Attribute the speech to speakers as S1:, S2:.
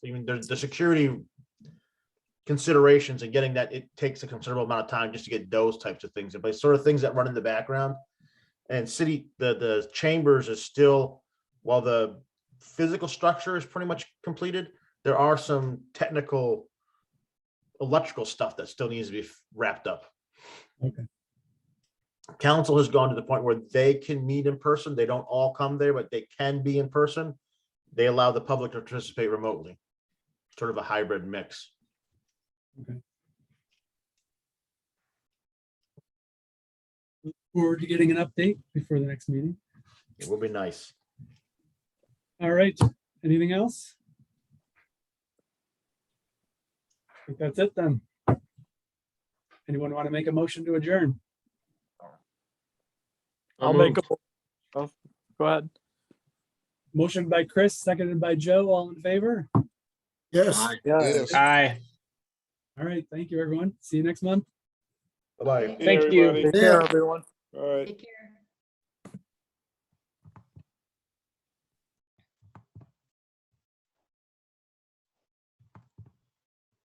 S1: even the, the security considerations and getting that, it takes a considerable amount of time just to get those types of things, in place. sort of things that run in the background. And city, the, the chambers is still, while the physical structure is pretty much completed, there are some technical electrical stuff that still needs to be wrapped up.
S2: Okay.
S1: Council has gone to the point where they can meet in person. They don't all come there, but they can be in person. They allow the public to participate remotely. Sort of a hybrid mix.
S2: forward to getting an update before the next meeting.
S1: It will be nice.
S2: All right, anything else? I think that's it then. Anyone want to make a motion to adjourn?
S3: I'll make a. oh, Go ahead.
S2: Motion by Chris, seconded by Joe, all in favor?
S4: Yes.
S3: Yeah.
S4: Yes.
S5: Aye.
S2: All right, thank you, everyone. See you next month.
S1: Bye-bye.
S3: Thank you.
S4: Yeah.
S3: everyone.
S6: Take care.